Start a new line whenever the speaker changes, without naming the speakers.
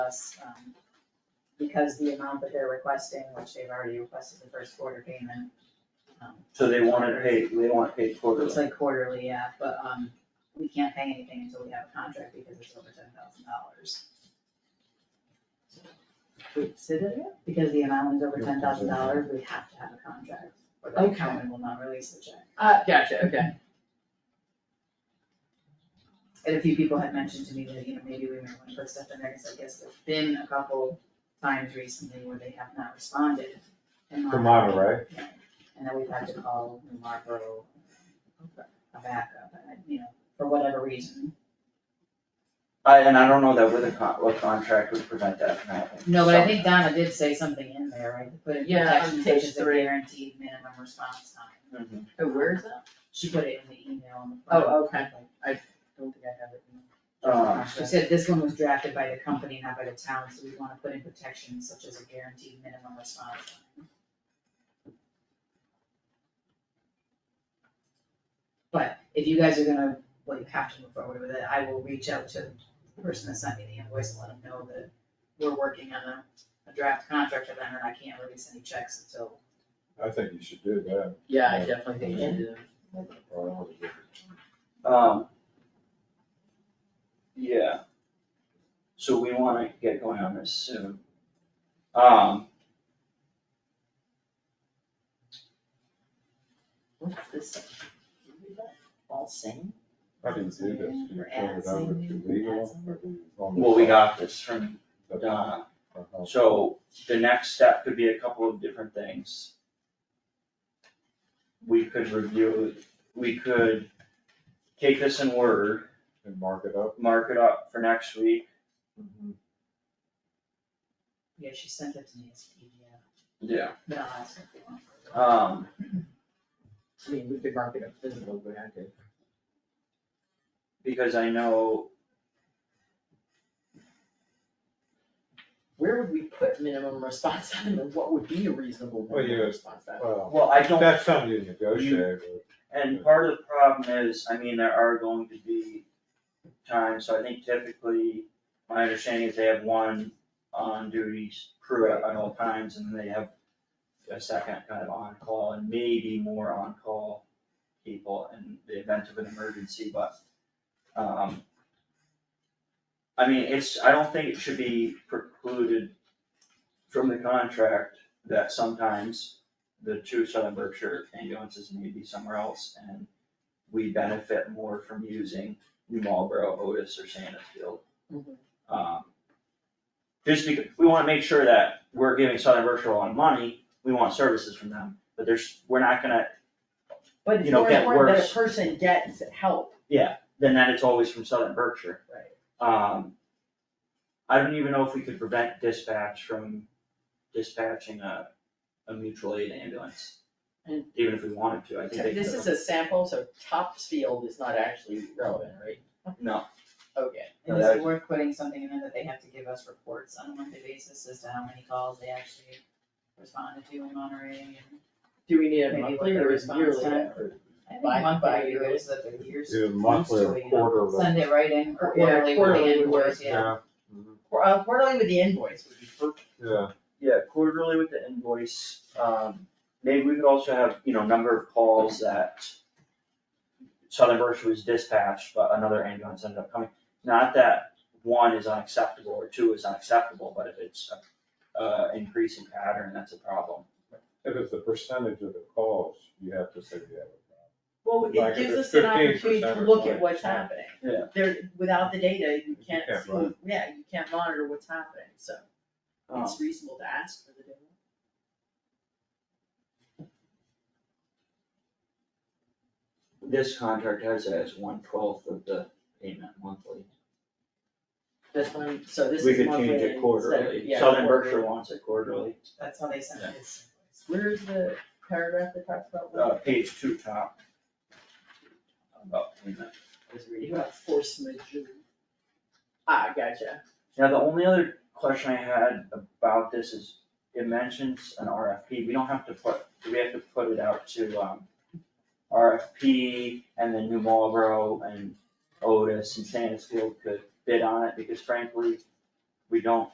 us, um, because the amount that they're requesting, which they've already requested the first quarter payment, um,
So they want it paid, they want it paid
it's
quarterly.
like quarterly, yeah, but, um, we can't pay anything until we have a contract because it's over ten thousand dollars. Because the amount is over ten thousand dollars, we have to have a contract, or the
Okay.
accountant will not release the check.
Uh, gotcha, okay.
And a few people had mentioned to me that, you know, maybe we might want to put stuff in there, because I guess there's been a couple times recently where they have not responded. and
For
Mark-
Monterey,
And then we've had to call New Marlboro a backup, and, you know, for whatever reason.
I, and I don't know that with a con, what contract would prevent that from happening.
No, but I think Donna did say something in there, right, to put in
Yeah, on
protection, such
page
as a
three.
guaranteed minimum response time.
Mhm.
Oh, where is that?
She put it in the email on the front.
Oh, okay. I don't think I have it. in-
Um,
She said this one was drafted by the company, not by the town, so we wanna put in protections such as a guaranteed minimum response time. But if you guys are gonna, well, you have to move forward with it, I will reach out to the person that sent me the invoice and let them know that we're working on a, a draft contract for them, and I can't release any checks until.
I think you should do that.
Yeah, I definitely think you do.
um, Yeah. So we wanna get going on this soon. Um,
What's this? All same?
How do you do this? Do you turn it over to legal? or do you-
well, we got this from
That's-
Donna.
uh-huh.
So the next step could be a couple of different things. We could review, we could take this in Word,
And mark it up.
mark it up for next week.
Yeah, she sent it to me as PDF,
Yeah.
but I'll ask her if they want.
Um,
I mean, we could mark it up physical, but I could.
because I know,
Where would we put minimum response time and what would be a reasonable
Well, you-
minimum response time?
Well,
well, I don't,
that's something you negotiate with.
and part of the problem is, I mean, there are going to be times, so I think typically, my understanding is they have one on duty crew at all times and they have a second kind of on-call and maybe more on-call people in the event of an emergency, but, um, I mean, it's, I don't think it should be precluded from the contract that sometimes the two Southern Berkshire ambulances may be somewhere else and we benefit more from using New Marlboro, Otis or Sandusfield.
Mhm.
Um, Just because, we wanna make sure that we're giving Southern Berkshire a lot of money, we want services from them, but there's, we're not gonna,
But it's
you know,
more
get
important that
worse.
a person gets help.
then that it's always from Southern Berkshire.
Right.
Um, I don't even know if we could prevent dispatch from dispatching a, a mutual aid ambulance.
And-
Even if we wanted to, I think they could.
This is a sample, so Topsfield is not actually relevant, right?
No.
Okay.
And is it worth putting something in there that they have to give us reports on a monthly basis as to how many calls they actually responded to in Monterey and.
Do we need a
Maybe
monthly
what the
or a
response
yearly?
time- I think
Bi-
monthly would be
bi-yearly.
good, so that the years,
Do monthly
Usually,
or
yeah.
quarterly.
send it right in, or
Yeah,
quarterly with
quarterly
the
would work,
invoice, yeah.
Mhm.
Qu- uh, Quarterly with the invoice would be perfect.
Yeah,
Yeah, quarterly with the invoice, um, maybe we could also have, you know, number of calls that Southern Berkshire was dispatched, but another ambulance ended up coming. Not that one is unacceptable or two is unacceptable, but if it's a, uh, increasing pattern, that's a problem.
if it's the percentage of the calls, you have to say you have a
Well,
Like
it
if
gives
it's
us an
15%
opportunity to
or
look at
something.
what's happening.
Yeah.
There, without the data, you can't
can't
see,
run.
yeah, you can't monitor what's happening, so
Um,
it's reasonable to ask for the data.
This contract has it as one twelfth of the payment monthly.
This one, so this
We
is
could
monthly
change it
instead of-
quarterly,
yeah,
Southern
quarterly.
Berkshire wants it quarterly,
That's how they send it.
Where's the paragraph that talks about?
uh, page two top. About payment.
I was reading about force majeure. Ah, gotcha.
Now, the only other question I had about this is, it mentions an RFP, we don't have to put, do we have to put it out to, um, RFP and then New Marlboro and Otis and Sandusfield could bid on it, because frankly, we don't